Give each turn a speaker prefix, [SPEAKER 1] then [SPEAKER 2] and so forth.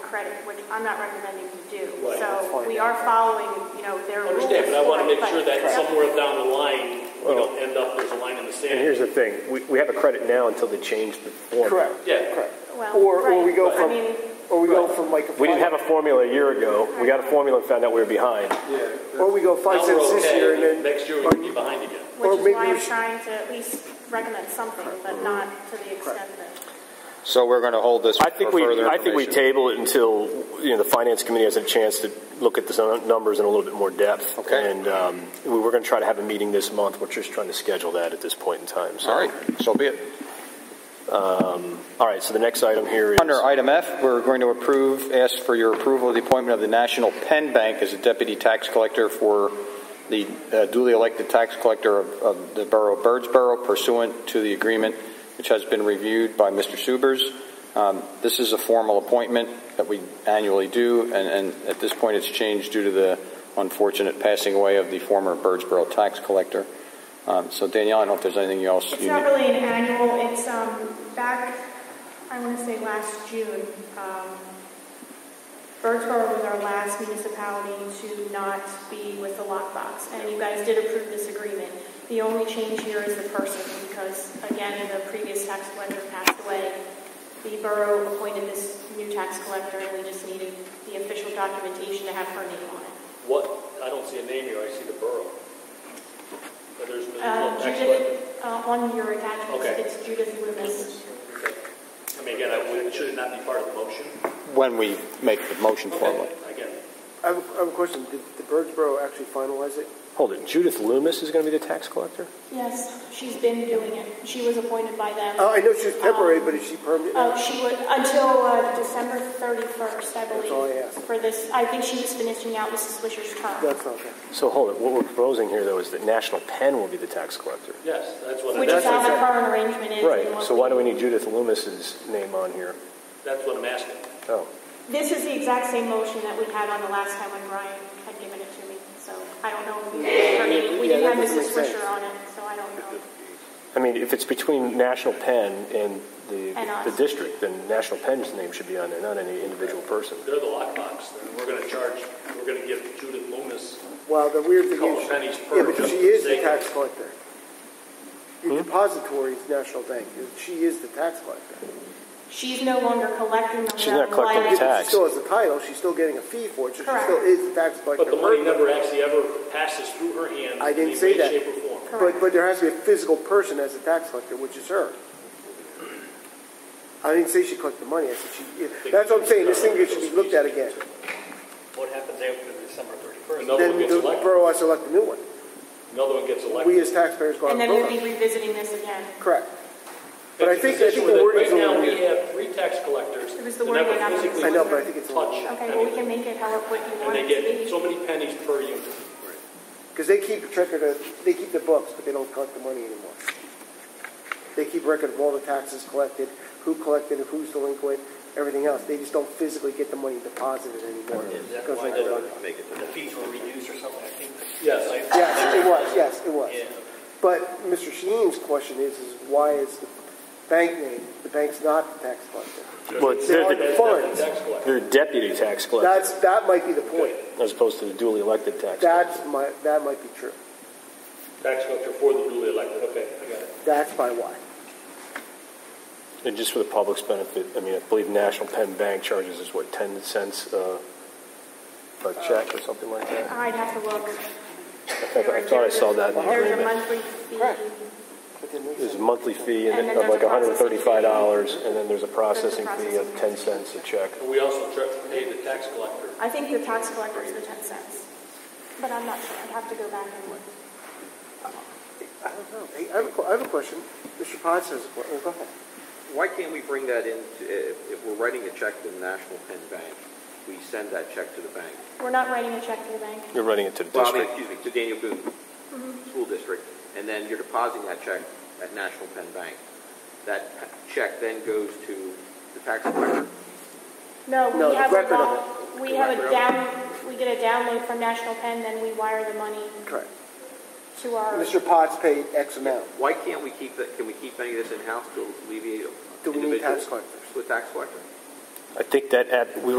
[SPEAKER 1] credit, which I'm not recommending you do.
[SPEAKER 2] Right.
[SPEAKER 1] So we are following, you know, their
[SPEAKER 2] I
[SPEAKER 1] rules.
[SPEAKER 2] understand, but I want to
[SPEAKER 1] for it,
[SPEAKER 2] make sure
[SPEAKER 1] but-
[SPEAKER 2] that somewhere down the line, we
[SPEAKER 3] Well-
[SPEAKER 2] don't end up, there's a line in the
[SPEAKER 3] And
[SPEAKER 2] sand.
[SPEAKER 3] here's the thing, we, we have a credit now until they change the formula.
[SPEAKER 4] Correct.
[SPEAKER 2] Yeah.
[SPEAKER 4] Correct.
[SPEAKER 1] Well,
[SPEAKER 4] Or, or we
[SPEAKER 1] right.
[SPEAKER 4] go
[SPEAKER 1] I mean-
[SPEAKER 4] from, or we go from like. a
[SPEAKER 3] We didn't have a
[SPEAKER 4] five-
[SPEAKER 3] formula a year ago, we got a formula and found out we were behind.
[SPEAKER 4] Or we go five
[SPEAKER 2] Now we're
[SPEAKER 4] cents this
[SPEAKER 2] okay,
[SPEAKER 4] year and
[SPEAKER 2] and
[SPEAKER 4] then.
[SPEAKER 2] next year we can be behind again.
[SPEAKER 1] Which
[SPEAKER 4] or
[SPEAKER 1] is
[SPEAKER 4] maybe
[SPEAKER 1] why
[SPEAKER 4] we
[SPEAKER 1] I'm
[SPEAKER 4] should-
[SPEAKER 1] trying to at least recommend something, but not to the extent that.
[SPEAKER 5] So we're going to hold this
[SPEAKER 3] I
[SPEAKER 5] for
[SPEAKER 3] think we,
[SPEAKER 5] further
[SPEAKER 3] I think we
[SPEAKER 5] information.
[SPEAKER 3] table it until, you know, the finance committee has a chance to look at the sun- numbers in a little bit more depth.
[SPEAKER 5] Okay.
[SPEAKER 3] And, um, we were gonna try to have a meeting this month, we're just trying to schedule that at this point in time, so.
[SPEAKER 5] All right, so be it.
[SPEAKER 3] All right, so the next item here is.
[SPEAKER 5] Under item F, we're going to approve, ask for your approval of the appointment of the National Penn Bank as a deputy tax collector for the uh, duly elected tax collector of, of the borough of Birdsboro pursuant to the agreement which has been reviewed by Mr. Subers. Um, this is a formal appointment that we annually do, and, and at this point it's changed due to the unfortunate passing away of the former Birdsboro tax collector. Um, so Danielle, I don't know if there's anything else
[SPEAKER 1] It's
[SPEAKER 5] you
[SPEAKER 1] not
[SPEAKER 5] need.
[SPEAKER 1] really an annual, it's, um, back, I want to say last June, um, Birdsboro was our last municipality to not be with the lockbox, and you guys did approve this agreement. The only change here is the person, because again, the previous tax collector passed away. The borough appointed this new tax collector, and we just needed the official documentation to have her name on it.
[SPEAKER 2] What, I don't see a name here, I see the borough. But there's
[SPEAKER 1] Uh,
[SPEAKER 2] no no tax collector.
[SPEAKER 1] Judith, uh, on your attachments,
[SPEAKER 2] Okay.
[SPEAKER 1] it's Judith Loomis.
[SPEAKER 2] Okay. I mean, again, I wouldn't, should it not be part of the motion?
[SPEAKER 5] When we make the motion formally.
[SPEAKER 2] Okay, Again,
[SPEAKER 4] I have, I have a question. Did the Birdsboro actually finalize it?
[SPEAKER 3] Hold it, Judith Loomis is gonna be the tax collector?
[SPEAKER 1] Yes, she's been doing it. She was appointed by them.
[SPEAKER 4] Oh, I know she's temporary, but is she permanent? now?
[SPEAKER 1] Uh, she would, until uh, December 31st, I
[SPEAKER 4] all I
[SPEAKER 1] believe,
[SPEAKER 4] asked.
[SPEAKER 1] for this, I think she was finishing out Mrs. Swisher's term,
[SPEAKER 4] That's not bad.
[SPEAKER 3] So hold it, what we're proposing here though is that National Penn will be the tax collector.
[SPEAKER 2] yes, that's what,
[SPEAKER 1] which is
[SPEAKER 2] that's
[SPEAKER 1] how the
[SPEAKER 2] what,
[SPEAKER 1] current arrangement is. and
[SPEAKER 3] Right,
[SPEAKER 1] what
[SPEAKER 3] so why do we need Judith Loomis's name on here?
[SPEAKER 2] that's what I'm asking.
[SPEAKER 3] Oh,
[SPEAKER 1] This is the exact same motion that we had on the last time when Brian had given it to me, so I don't know if we, I mean, we
[SPEAKER 4] Yeah,
[SPEAKER 1] didn't
[SPEAKER 4] that
[SPEAKER 1] have
[SPEAKER 4] doesn't
[SPEAKER 1] Mrs.
[SPEAKER 4] make sense.
[SPEAKER 1] Swisher on it, so I don't know.
[SPEAKER 3] I mean, if it's between National Penn and the,
[SPEAKER 1] And us.
[SPEAKER 3] the district, then National Penn's name should be on there, not any individual person.
[SPEAKER 2] They're the lockbox, and we're going to charge, we're going to give Judith Loomis,
[SPEAKER 4] Well, the weird thing
[SPEAKER 2] Couple
[SPEAKER 4] is,
[SPEAKER 2] pennies per Hmm?
[SPEAKER 4] yeah, but
[SPEAKER 2] just
[SPEAKER 4] she is
[SPEAKER 2] for
[SPEAKER 4] the
[SPEAKER 2] sake
[SPEAKER 4] tax collector. Your depository is National Bank. She is the tax collector.
[SPEAKER 1] She's no longer collecting them.
[SPEAKER 3] She's not
[SPEAKER 1] they're
[SPEAKER 3] collecting
[SPEAKER 1] liable.
[SPEAKER 3] tax.
[SPEAKER 4] She still has a title. She's still getting a fee for it. So she
[SPEAKER 1] Correct.
[SPEAKER 4] still is the tax collector.
[SPEAKER 2] but the money never actually ever passes through her hands.
[SPEAKER 4] I didn't
[SPEAKER 2] in
[SPEAKER 4] say
[SPEAKER 2] any
[SPEAKER 4] that.
[SPEAKER 2] way, Shape or form.
[SPEAKER 4] But, but there has to be a physical person as a tax collector, which is her. I didn't say she collected the money. I said she, yeah, that's what I'm saying. This thing should be looked at again.
[SPEAKER 6] What happens after December 31st?
[SPEAKER 2] Another
[SPEAKER 4] Then
[SPEAKER 2] one gets
[SPEAKER 4] the
[SPEAKER 2] elected,
[SPEAKER 4] borough has to elect a new one.
[SPEAKER 2] another one gets
[SPEAKER 4] We
[SPEAKER 2] elected.
[SPEAKER 4] as taxpayers go out
[SPEAKER 1] And then
[SPEAKER 4] and
[SPEAKER 1] we'll
[SPEAKER 4] vote.
[SPEAKER 1] be revisiting this again.
[SPEAKER 4] Correct. But I
[SPEAKER 2] It's a
[SPEAKER 4] think, I think
[SPEAKER 2] position
[SPEAKER 4] the
[SPEAKER 2] that
[SPEAKER 4] wording's a
[SPEAKER 2] Right now,
[SPEAKER 4] little
[SPEAKER 2] we
[SPEAKER 4] weird.
[SPEAKER 2] have three tax collectors
[SPEAKER 1] It
[SPEAKER 2] that
[SPEAKER 1] was the
[SPEAKER 2] never
[SPEAKER 1] wording I was-
[SPEAKER 2] physically
[SPEAKER 4] I know, but I think it's a little
[SPEAKER 2] touch.
[SPEAKER 1] Okay, well, we can make it however quick you
[SPEAKER 2] And
[SPEAKER 1] want
[SPEAKER 2] they
[SPEAKER 1] it to
[SPEAKER 2] get
[SPEAKER 1] be.
[SPEAKER 2] so many pennies per unit.
[SPEAKER 4] Because they keep record of, they keep the books, but they don't collect the money anymore. They keep record of all the taxes collected, who collected, it, who's delinquent, everything else. They just don't physically get the money deposited anymore.
[SPEAKER 6] Is that
[SPEAKER 4] Goes
[SPEAKER 6] why
[SPEAKER 4] like
[SPEAKER 6] the
[SPEAKER 4] that.
[SPEAKER 6] the fees were reduced or something? I think.
[SPEAKER 2] Yes.
[SPEAKER 4] Yes, it was, yes, it
[SPEAKER 6] Yeah.
[SPEAKER 4] was. But Mr. Sheen's question is, is why is the bank named? The bank's not the tax collector.
[SPEAKER 3] Well, it's- they're,
[SPEAKER 4] They
[SPEAKER 3] the-
[SPEAKER 2] That's
[SPEAKER 4] Funds.
[SPEAKER 2] definitely tax collector.
[SPEAKER 3] they're deputy tax collector,
[SPEAKER 4] That's, that might be the point.
[SPEAKER 3] as opposed to the duly elected tax.
[SPEAKER 4] That's my, that might be true.
[SPEAKER 2] Tax collector for the duly elected, okay, I got it.
[SPEAKER 4] That's my why.
[SPEAKER 3] And just for the public's benefit, I mean, I believe National Penn Bank charges is what, 10 cents uh, a
[SPEAKER 4] Uh,
[SPEAKER 3] check or something like that?
[SPEAKER 1] I'd have to look.
[SPEAKER 3] I think- I thought I saw that in the
[SPEAKER 1] There's a
[SPEAKER 3] agreement.
[SPEAKER 1] monthly fee.
[SPEAKER 4] Correct. But then there's-
[SPEAKER 3] There's a monthly fee and
[SPEAKER 1] And then
[SPEAKER 3] of like
[SPEAKER 1] there's a processing fee.
[SPEAKER 3] $135, and then there's a processing fee of
[SPEAKER 1] processing fee.
[SPEAKER 3] 10 cents a check.
[SPEAKER 2] And we also charge, pay the tax collector.
[SPEAKER 1] I think the tax collector is the 10 cents, but I'm not sure. I'd have to go back and look.
[SPEAKER 4] I don't know. Hey, I have a, que- I have a question. Mr. Potts has a question. Go ahead.
[SPEAKER 7] Why can't we bring that in, if, if we're writing a check to the National Penn Bank, we send that check to the bank?
[SPEAKER 1] We're not writing a check to the bank.
[SPEAKER 3] You're running it to the
[SPEAKER 7] Well, I mean,
[SPEAKER 3] district.
[SPEAKER 7] excuse me, to Daniel Boone School District, and then you're depositing that check at National Penn Bank. That check then goes to the tax collector.
[SPEAKER 1] No,
[SPEAKER 4] No,
[SPEAKER 1] we
[SPEAKER 4] the
[SPEAKER 1] have a,
[SPEAKER 4] record of
[SPEAKER 1] vol- we have a
[SPEAKER 7] Record of it.
[SPEAKER 1] down, we get a download from National Pen, then we wire the money
[SPEAKER 4] Correct.
[SPEAKER 1] to our,
[SPEAKER 4] Mr. Potts paid X amount.
[SPEAKER 7] Why can't we keep that, can we keep any of this in-house to alleviate
[SPEAKER 4] Do we need
[SPEAKER 7] individual-
[SPEAKER 4] tax collectors?
[SPEAKER 7] To a tax collector?
[SPEAKER 3] I think that, app- we